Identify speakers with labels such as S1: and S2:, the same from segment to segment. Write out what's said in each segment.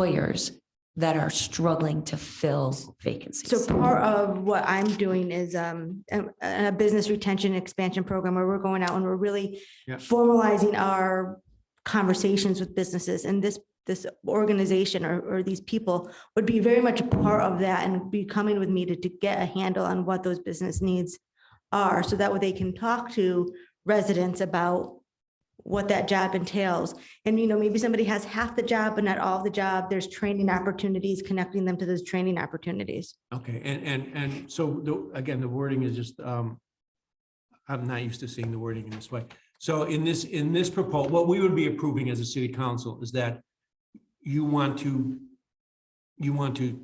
S1: employers that are struggling to fill
S2: So
S1: vacancies.
S2: part of what I'm doing is um, a, a business retention expansion program where we're going out and we're really
S3: Yeah.
S2: formalizing our conversations with businesses and this, this organization or, or these people would be very much a part of that and be coming with me to, to get a handle on what those business needs are. So that way they can talk to residents about what that job entails. And, you know, maybe somebody has half the job, but not all the job. There's training opportunities, connecting them to those training opportunities.
S3: Okay, and, and, and so the, again, the wording is just, um, I'm not used to seeing the wording in this way. So in this, in this proposal, what we would be approving as a city council is that you want to, you want to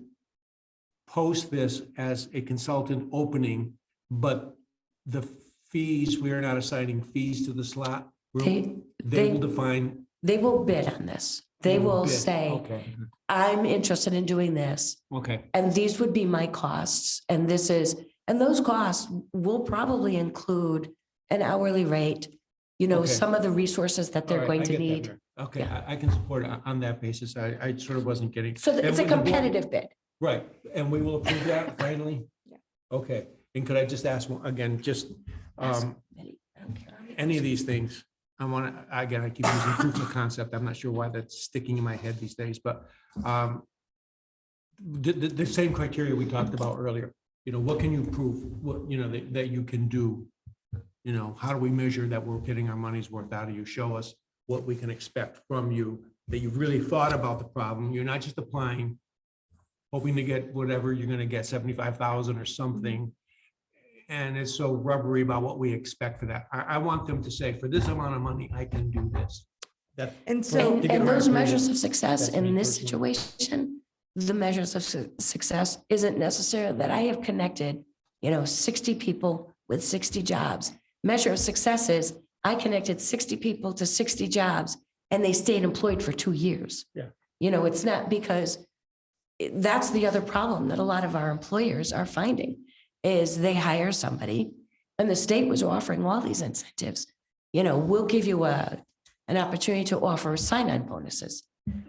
S3: post this as a consultant opening, but the fees, we are not assigning fees to the slot. We're-
S1: They,
S3: They will
S1: they-
S3: define.
S1: they will bid on this. They will
S3: bid.
S1: say,
S3: Okay,
S1: I'm interested in doing this.
S3: Okay,
S1: And these would be my costs. And this is, and those costs will probably include an hourly rate. You know,
S3: Okay.
S1: some of the resources that
S3: All
S1: they're
S3: right,
S1: going
S3: I
S1: to
S3: get that,
S1: need.
S3: Mary. Okay, I, I can support it on- on that basis. I, I sort of wasn't getting.
S1: So th-
S3: And
S1: it's a
S3: with the board-
S1: competitive bid.
S3: Right, and we will approve that finally?
S2: Yeah.
S3: Okay, and could I just ask one, again, just,
S1: Ask
S3: um,
S1: committee. I don't care.
S3: any of these things? I want to, again, I keep using proof of concept. I'm not sure why that's sticking in my head these days, but, um, the, the, the same criteria we talked about earlier, you know, what can you prove, what, you know, that, that you can do? You know, how do we measure that we're getting our money's worth out of you? Show us what we can expect from you, that you've really thought about the problem. You're not just applying, hoping to get whatever, you're gonna get seventy-five thousand or something. And it's so rubbery about what we expect for that. I, I want them to say, for this amount of money, I can do this. That,
S2: And so,
S3: to
S1: And,
S3: get
S1: and
S3: our
S1: those
S3: approval.
S1: measures of success
S3: That's
S1: in
S3: me
S1: this
S3: personally.
S1: situation, the measures of su- success isn't necessary that I have connected, you know, sixty people with sixty jobs. Measure of success is I connected sixty people to sixty jobs and they stayed employed for two years.
S3: Yeah.
S1: You know, it's not because it- that's the other problem that a lot of our employers are finding is they hire somebody and the state was offering all these incentives. You know, we'll give you a an opportunity to offer sign-on bonuses.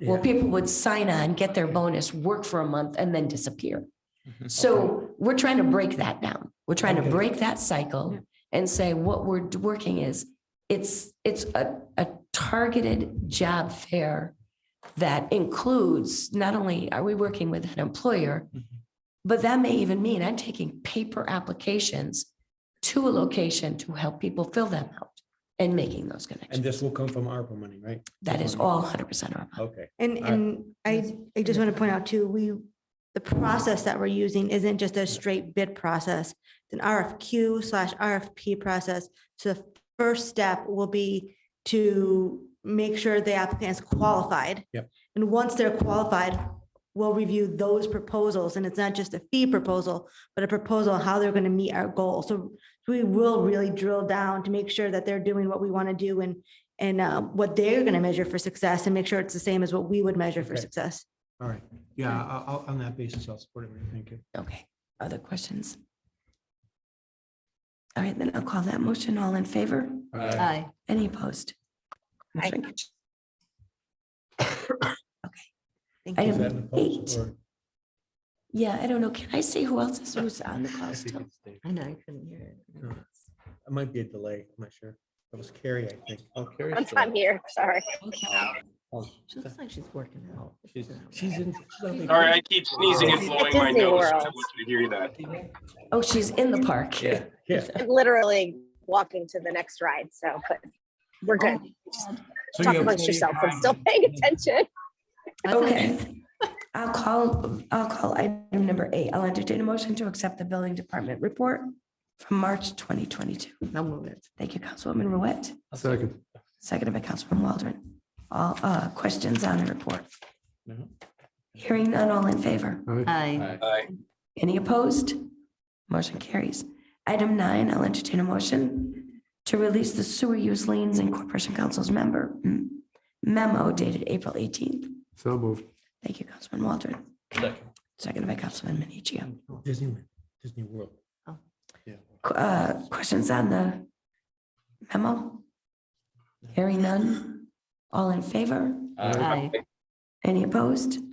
S1: Well, people would sign on, get their bonus, work for a month, and then disappear.
S3: Mhm.
S1: So we're trying to break that down. We're trying to
S3: Okay.
S1: break that cycle
S2: Yeah.
S1: and say what we're d- working is, it's, it's a, a targeted job fair that includes, not only are we working with an employer,
S3: Mhm.
S1: but that may even mean I'm taking paper applications to a location to help people fill them out and making those connections.
S3: And this will come from ARPA money, right?
S1: That is all hundred percent our fault.
S3: Okay.
S2: and,
S3: All right.
S2: and I, I just want to point out too, we, the process that we're using isn't just a straight bid process. It's an RFQ slash RFP process. So the first step will be to make sure the applicant is qualified.
S3: Yep.
S2: And once they're qualified, we'll review those proposals. And it's not just a fee proposal, but a proposal on how they're going to meet our goal. So we will really drill down to make sure that they're doing what we want to do and, and uh, what they're going to measure for success and make sure it's the same as what we would measure for
S3: Okay.
S2: success.
S3: All right, yeah, I'll, I'll- on that basis, I'll support it, Mary. thank you.
S1: Okay, other questions? All right, then I'll call that motion. All in favor? Aye. Any opposed? Motion carries.
S2: Thank
S1: I
S2: you.
S3: Is that in the post
S1: eight.
S3: or-
S1: Yeah, I don't know. Can I see who else is who's on the call
S3: I think
S1: still?
S3: it's Dave.
S4: I know, I couldn't hear it.
S3: Sure. It might be a delay, I'm not sure. That was Carrie, I think. Oh, Carrie.
S5: I'm, I'm here, sorry.
S1: Okay.
S4: She looks like she's working out.
S3: She's she's in. she's on
S6: Sorry, I keep sneezing and
S5: She's at
S6: blowing my
S5: Disney
S6: nose. I
S5: World.
S6: want you to hear that.
S1: Oh, she's in the park.
S3: Yeah. Yeah.
S5: I'm literally walking to the next ride, so, but we're good. Just
S3: Oh, So
S5: Talk
S3: you have plenty
S5: amongst
S3: of
S5: yourself. I'm
S3: time. Mm-hmm.
S5: still paying attention.
S1: Okay. I'll call, I'll call item number eight. I'll entertain a motion to accept the billing department report from March twenty twenty-two.
S4: I'll move it.
S1: Thank you, Councilwoman Ruette.
S7: Second.
S1: Seconded by Councilman Waldron. All uh, questions on the report?
S7: No.
S1: Hearing none, all in favor?
S4: Aye.
S6: Aye.
S1: Any opposed? Motion carries. Item nine, I'll entertain a motion to release the sewer use liens and Corporation Council's member memo dated April eighteenth.
S7: So moved.
S1: Thank you, Councilman Waldron.
S7: Second.
S1: Seconded by Councilman Minichia.
S3: Disneyland, Disney World.
S4: Oh.
S3: Yeah.
S1: Qu- uh, Questions on the memo? Hearing none. All in favor?
S7: Aye.
S4: Aye.
S1: Any opposed?